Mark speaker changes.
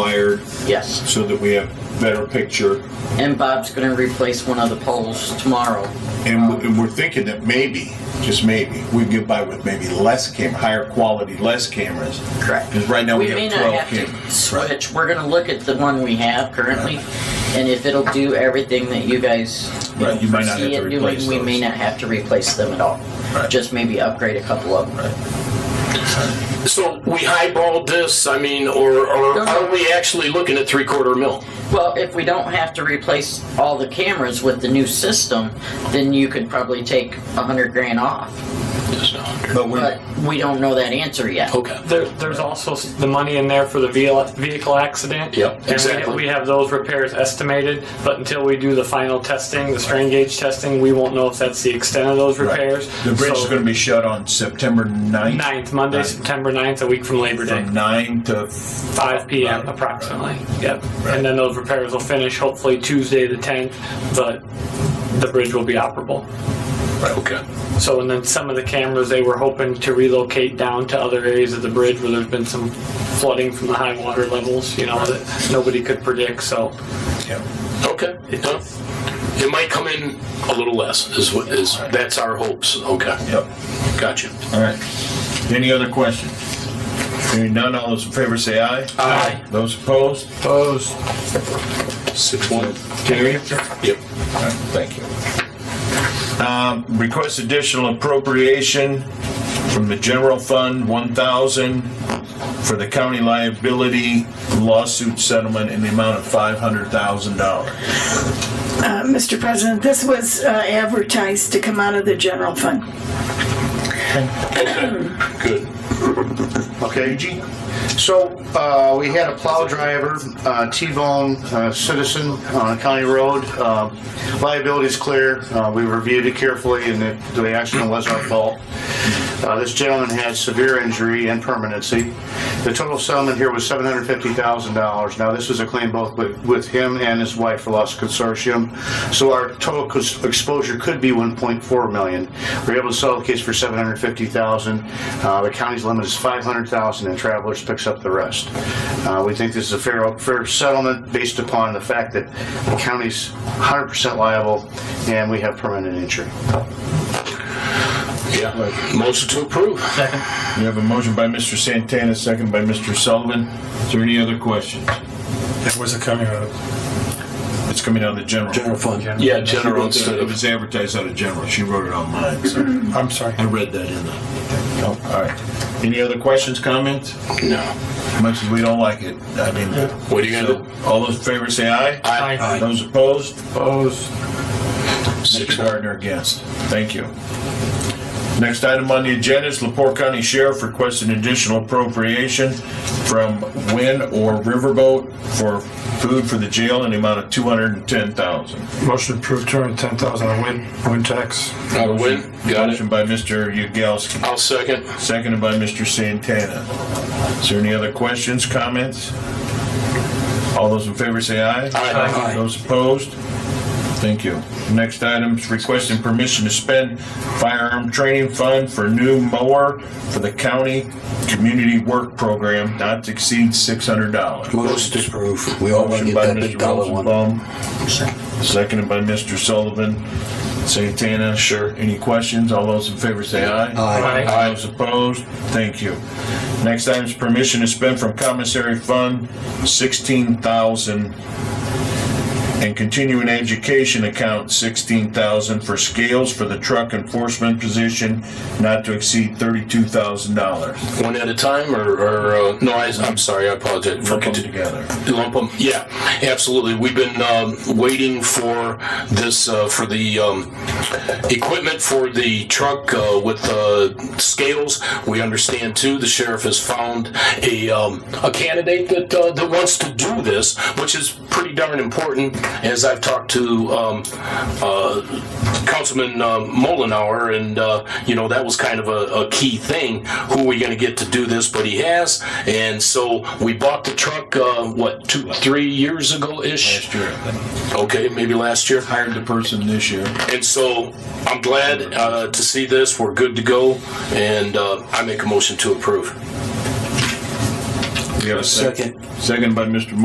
Speaker 1: wired
Speaker 2: Yes.
Speaker 1: so that we have better picture.
Speaker 2: And Bob's going to replace one of the poles tomorrow.
Speaker 1: And w- and we're thinking that maybe, just maybe, we get by with maybe less cam, higher quality, less cameras.
Speaker 2: Correct.
Speaker 1: Because right now we,
Speaker 2: We may
Speaker 1: have
Speaker 2: not
Speaker 1: 12
Speaker 2: have to
Speaker 1: cameras. right?
Speaker 2: switch. We're going to look at the one we have currently, and if it'll do everything that you guys
Speaker 1: Right, you might not
Speaker 2: see
Speaker 1: have to
Speaker 2: it doing,
Speaker 1: replace
Speaker 2: we may
Speaker 1: those.
Speaker 2: not have to replace them at all.
Speaker 1: Right.
Speaker 2: Just maybe upgrade a couple of them.
Speaker 3: So we highballed this, I mean, or, or
Speaker 2: No, no.
Speaker 3: are we actually looking at three quarter mil?
Speaker 2: Well, if we don't have to replace all the cameras with the new system, then you could probably take a hundred grand off.
Speaker 1: But we,
Speaker 2: But we don't know that answer yet.
Speaker 3: Okay.
Speaker 4: There, there's also s- the money in there for the vehicle, vehicle accident.
Speaker 3: Yep,
Speaker 4: And we-
Speaker 3: exactly.
Speaker 4: we have those repairs estimated, but until we do the final testing, the strain gauge testing, we won't know if that's the extent of those
Speaker 1: right.
Speaker 4: repairs.
Speaker 1: The bridge
Speaker 4: So-
Speaker 1: is going to be shut on September 9th.
Speaker 4: Ninth, Monday,
Speaker 1: Ninth.
Speaker 4: September 9th, a week from Labor Day,
Speaker 1: From 9 to f-
Speaker 4: five PM
Speaker 1: Right.
Speaker 4: approximately. Yep. And then those repairs will finish hopefully Tuesday, the 10th, but the bridge will be operable.
Speaker 3: Okay.
Speaker 4: So, and then some of the cameras, they were hoping to relocate down to other areas of the bridge where there's been some flooding from the high water levels, you know, that nobody could predict, so.
Speaker 1: yeah.
Speaker 3: Okay. Huh? It might come in a little less, is what is, that's our hopes. Okay.
Speaker 1: Yep.
Speaker 3: Gotcha.
Speaker 1: All right. Any other questions? Hearing none, all those in favor say aye.
Speaker 3: Aye.
Speaker 1: Those opposed? Opposed.
Speaker 3: Six one.
Speaker 1: Carry.
Speaker 3: Yep.
Speaker 1: All right, Thank you. Um, Request additional appropriation from the general fund, 1,000, for the county liability lawsuit settlement in the amount of $500,000.
Speaker 5: Uh, Mr. President, this was uh, advertised to come out of the general fund.
Speaker 3: Good.
Speaker 6: Okay. So uh, we had a plow driver, uh, T-bone uh, citizen on a county road. Uh, Liability is clear. Uh, We reviewed it carefully and the the accident was our fault. Uh, This gentleman had severe injury and permanency. The total settlement here was $750,000. Now, this is a claim both with- with him and his wife for loss consortium. So our total cons- exposure could be 1.4 million. We were able to settle the case for 750,000. Uh, The county's limit is 500,000 and Travelers picks up the rest. Uh, We think this is a fair, fair settlement based upon the fact that the county's 100% liable and we have permanent injury.
Speaker 3: Yeah. Motion to approve.
Speaker 1: We have a motion by Mr. Santana, second by Mr. Sullivan. Is there any other questions?
Speaker 7: That wasn't coming out of
Speaker 1: It's coming out of the general.
Speaker 7: general fund.
Speaker 3: Yeah,
Speaker 1: She
Speaker 3: general
Speaker 1: wrote that-
Speaker 3: instead
Speaker 1: It
Speaker 3: of.
Speaker 1: was advertised out of general. She wrote it on mine, so
Speaker 7: I'm sorry.
Speaker 1: I read that in the. Oh, All right. Any other questions, comments?
Speaker 3: No.
Speaker 1: Much as we don't like it, I mean.
Speaker 3: What are you gonna do?
Speaker 1: All those in favor say aye.
Speaker 3: Aye.
Speaker 1: Those opposed?
Speaker 7: Opposed.
Speaker 1: Mr. Gardner against. Thank you. Next item on the agenda is Lepore County Sheriff requests an additional appropriation from Win or Riverboat for food for the jail in the amount of two hundred and ten thousand.
Speaker 7: Motion approved, two hundred and ten thousand on win, win tax.
Speaker 3: Got a win. Got it.
Speaker 1: Motion by Mr. Yagowski,
Speaker 3: I'll second.
Speaker 1: seconded by Mr. Santana. Is there any other questions, comments? All those in favor say aye.
Speaker 3: Aye.
Speaker 1: Those opposed? Thank you. Next item is requesting permission to spend firearm training fund for new mower for the county community work program not to exceed six hundred dollars.
Speaker 8: Motion to approve. We all want to get that big dollar one.
Speaker 1: Seconded by Mr. Sullivan. Santana? Sure. Any questions? All those in favor say aye.
Speaker 8: Aye.
Speaker 1: Aye. Those opposed? Thank you. Next item is permission to spend from commissary fund sixteen thousand and continuing education account sixteen thousand for scales for the truck enforcement position not to exceed thirty-two thousand dollars.
Speaker 3: One at a time, or, or uh, no? I, I'm sorry. I apologize.
Speaker 1: Lump them
Speaker 3: Continue.
Speaker 1: together.
Speaker 3: Lump 'em. yeah, absolutely. We've been um, waiting for this, uh, for the um, equipment for the truck uh, with uh, scales. We understand too, the sheriff has found a, um, a candidate that, uh, that wants to do this, which is pretty darn important, as I've talked to um, uh, Councilman uh, Mullenhour, and, uh, you know, that was kind of a, a key thing. Who are we going to get to do this? But he has, and so we bought the truck, uh, what, two, three years ago-ish?
Speaker 1: Last year, I think.
Speaker 3: Okay, maybe last year.
Speaker 1: hired the person this year.
Speaker 3: And so I'm glad uh, to see this. We're good to go, and uh, I make a motion to approve.
Speaker 1: We have a second. Second by Mr.